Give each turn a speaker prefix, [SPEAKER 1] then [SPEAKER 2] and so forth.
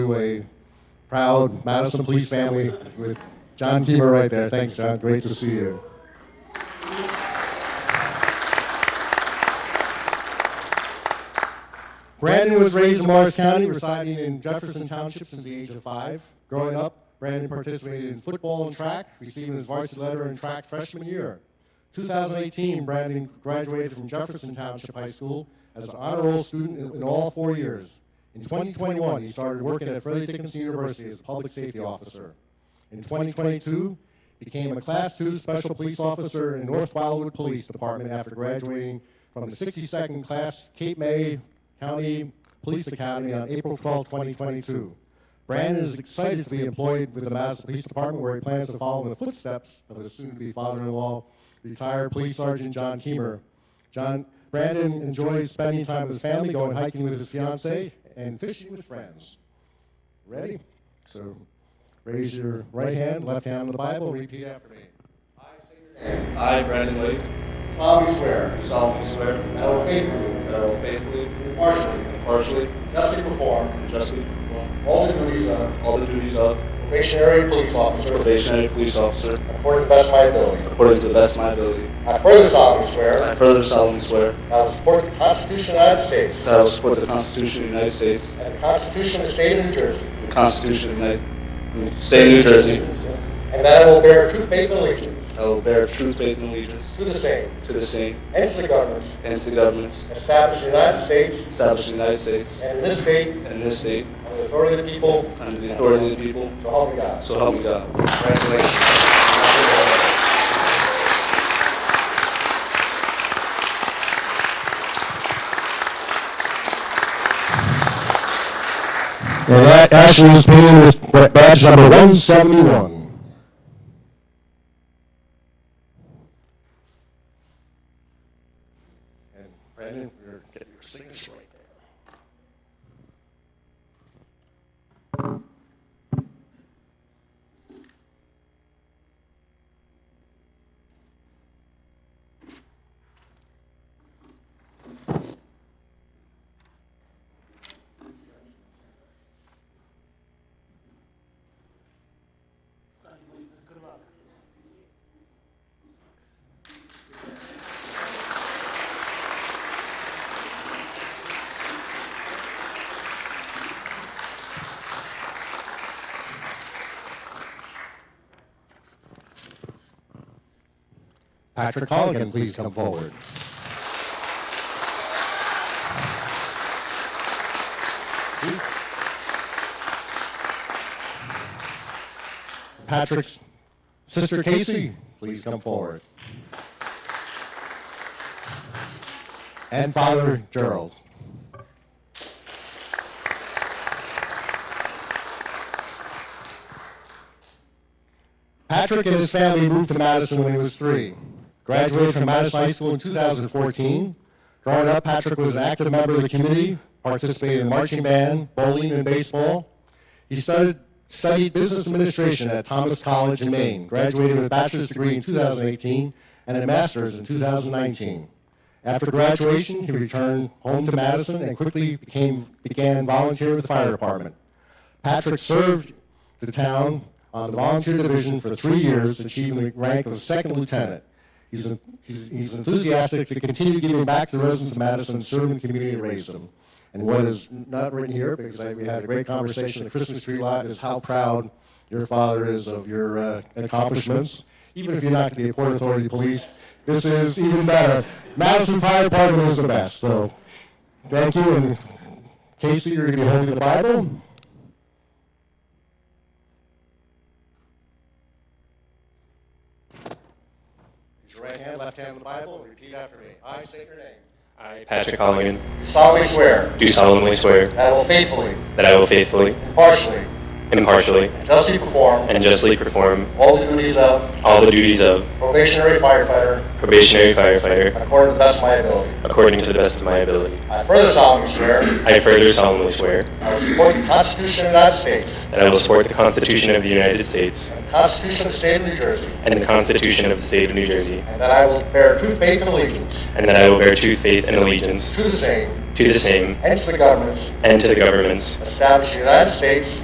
[SPEAKER 1] a proud Madison Police family with John Keemer right there. Thanks, John. Great to see you. Brandon was raised in Morris County, residing in Jefferson Township since the age of five. Growing up, Brandon participated in football and track, receiving his varsity letter in track freshman year. 2018, Brandon graduated from Jefferson Township High School as an honor roll student in- in all four years. In 2021, he started working at Fairleigh Dickinson University as a public safety officer. In 2022, became a Class II Special Police Officer in North Wildwood Police Department after graduating from the 62nd Class Cape May County Police Academy on April 12, 2022. Brandon is excited to be employed with the Madison Police Department, where he plans to follow in the footsteps of his soon-to-be father-in-law, retired police sergeant John Keemer. John Brandon enjoys spending time with his family, going hiking with his fiancee, and fishing with friends. Ready? So raise your right hand, left hand on the Bible, repeat after me.
[SPEAKER 2] I, Brandon Lake,
[SPEAKER 1] solemnly swear
[SPEAKER 2] do solemnly swear
[SPEAKER 1] that I will faithfully,
[SPEAKER 2] that I will faithfully,
[SPEAKER 1] impartially,
[SPEAKER 2] impartially,
[SPEAKER 1] justly perform
[SPEAKER 2] and justly perform
[SPEAKER 1] all the duties of
[SPEAKER 2] all the duties of
[SPEAKER 1] probationary police officer
[SPEAKER 2] probationary police officer
[SPEAKER 1] according to the best of my ability.
[SPEAKER 2] according to the best of my ability.
[SPEAKER 1] I further solemnly
[SPEAKER 2] I
[SPEAKER 1] swear
[SPEAKER 2] further solemnly swear
[SPEAKER 1] that I will support the Constitution of the United States
[SPEAKER 2] that I will support the Constitution of the United States,
[SPEAKER 1] and the Constitution of the State of New Jersey,
[SPEAKER 2] the Constitution of the United State of New Jersey.
[SPEAKER 1] and that I will bear true faith and allegiance
[SPEAKER 2] I will bear true faith and allegiance
[SPEAKER 1] to the same
[SPEAKER 2] to the same
[SPEAKER 1] and to the governments
[SPEAKER 2] and to the governments
[SPEAKER 1] established in the United States
[SPEAKER 2] established in the United States
[SPEAKER 1] and in this state
[SPEAKER 2] and in this state
[SPEAKER 1] on the authority of the people,
[SPEAKER 2] under the authority of the people.
[SPEAKER 1] so help me God.
[SPEAKER 2] So help me God. Congratulations.
[SPEAKER 1] And that Ashley is paying with badge number 171. And Brandon, you're getting your signature right there. Patrick Colligan, please come forward. Patrick's sister Casey, please come forward. And Father Gerald. Patrick and his family moved to Madison when he was three. Graduated from Madison High School in 2014. Growing up, Patrick was an active member of the community, participated in marching band, bowling, and baseball. He studied, studied business administration at Thomas College in Maine, graduated with a bachelor's degree in 2018 and a master's in 2019. After graduation, he returned home to Madison and quickly became, began volunteering with the fire department. Patrick served the town on the volunteer division for three years, achieving the rank of second lieutenant. He's, en- he's, he's enthusiastic to continue giving back to the residents of Madison, serving the community, and raise them. And what is not written here, because I, we had a great conversation at the Christmas tree lot, is how proud your father is of your uh, accomplishments. Even if you're not going to be a Port Authority police, this is even better. Madison Fire Department is the best. So thank you. And Casey, you're going to be holding the Bible. Raise your right hand, left hand on the Bible, and repeat after me. I state your name.
[SPEAKER 3] I, Patrick Holligan,
[SPEAKER 1] solemnly swear
[SPEAKER 3] do solemnly swear
[SPEAKER 1] that I will faithfully,
[SPEAKER 3] that I will faithfully,
[SPEAKER 1] impartially,
[SPEAKER 3] impartially,
[SPEAKER 1] and justly perform
[SPEAKER 3] and justly perform
[SPEAKER 1] all the duties of
[SPEAKER 3] all the duties of
[SPEAKER 1] probationary firefighter
[SPEAKER 3] probationary firefighter
[SPEAKER 1] according to the best of my ability.
[SPEAKER 3] according to the best of my ability.
[SPEAKER 1] I further solemnly swear
[SPEAKER 3] I further solemnly swear
[SPEAKER 1] I will support the Constitution of the United States
[SPEAKER 3] that I will support the Constitution of the United States
[SPEAKER 1] and the Constitution of the State of New Jersey,
[SPEAKER 3] and the Constitution of the State of New Jersey,
[SPEAKER 1] and that I will bear true faith and allegiance
[SPEAKER 3] and that I will bear true faith and allegiance
[SPEAKER 1] to the same
[SPEAKER 3] to the same,
[SPEAKER 1] and to the governments
[SPEAKER 3] and to the governments
[SPEAKER 1] established in the United States